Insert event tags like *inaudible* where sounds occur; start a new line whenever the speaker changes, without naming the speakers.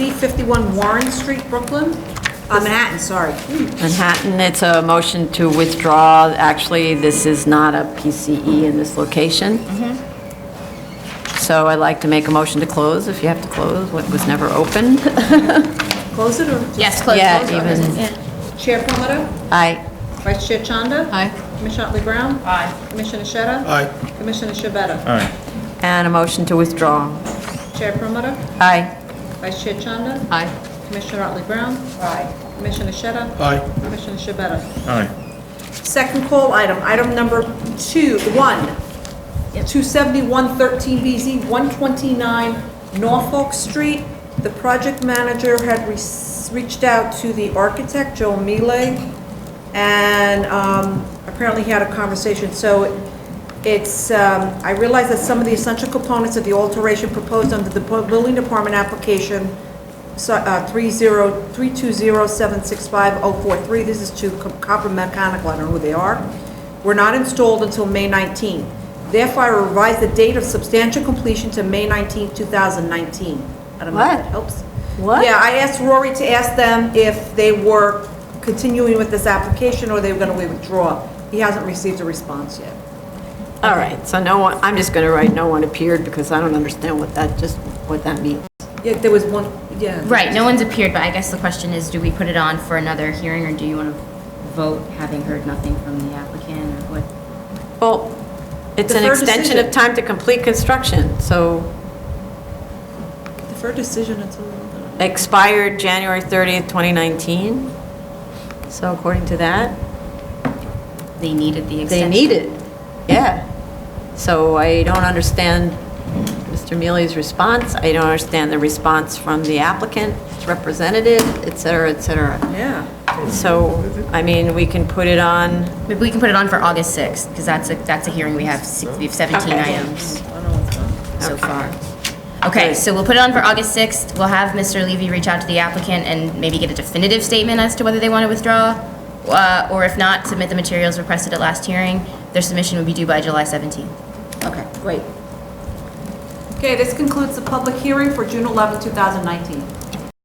51 Warren Street, Brooklyn, uh, Manhattan, sorry.
Manhattan, it's a motion to withdraw. Actually, this is not a PCE in this location. So I'd like to make a motion to close, if you have to close, what was never *laughs* opened.
Close it or? just-
Yes,
*laughs*
close,
Yeah,
close, close.
even-
Yeah.
Chair Promoter,
Aye.
Vice Chair Chanda.
Aye.
Commissioner Otley Brown.
Aye.
Commissioner Sheta.
Aye.
Commissioner Shabeta.
All right.
And a motion to withdraw.
Chair Promoter,
Aye.
Vice Chair Chanda.
Aye.
Commissioner Otley Brown. Aye. Commissioner Sheta.
Aye.
Commissioner Shabeta.
All right.
Second call item, item number two, one, 27113BZ, 129 Norfolk Street. The project manager had re- reached out to the architect, Joel Mealy, and um, apparently he had a conversation. So it's, um, I realize that some of the essential components of the alteration proposed under the building department application so, uh, 30320765043, this is to Co- Copper Mechanical, I don't know who they are, were not installed until May 19. Therefore, I revise the date of substantial completion to May 19, 2019. I don't know if
What?
that helps.
What?
Yeah, I asked Rory to ask them if they were continuing with this application or they were going to withdraw. He hasn't received a response yet.
All right, so no one, I'm just going to write, no one appeared, because I don't understand what that, just what that means.
Yeah, there was one, yeah.
Right, no one's appeared, but I guess the question is, do we put it on for another hearing, or do you want to vote, having heard nothing from the applicant, or what?
Well, it's an
Deferred
extension of
decision.
time to complete construction, so
Deferred decision until...
expired January 30th, 2019. So according to that,
They needed the
they
extension.
need it, yeah. So I don't understand Mr. Mealy's response, I don't understand the response from the applicant, its representative, et cetera, et cetera.
Yeah.
So, I mean, we can put it on,
Maybe we can put it on for August 6th, because that's a, that's a hearing, we have, six- we have 17
Okay.
items
I don't know what's on.
so far. Okay, so we'll put it on for August 6th, we'll have Mr. Levy reach out to the applicant and maybe get a definitive statement as to whether they want to withdraw, uh, or if not, submit the materials requested at last hearing. Their submission would be due by July 17th.
Okay, great. Okay, this concludes the public hearing for June 11, 2019.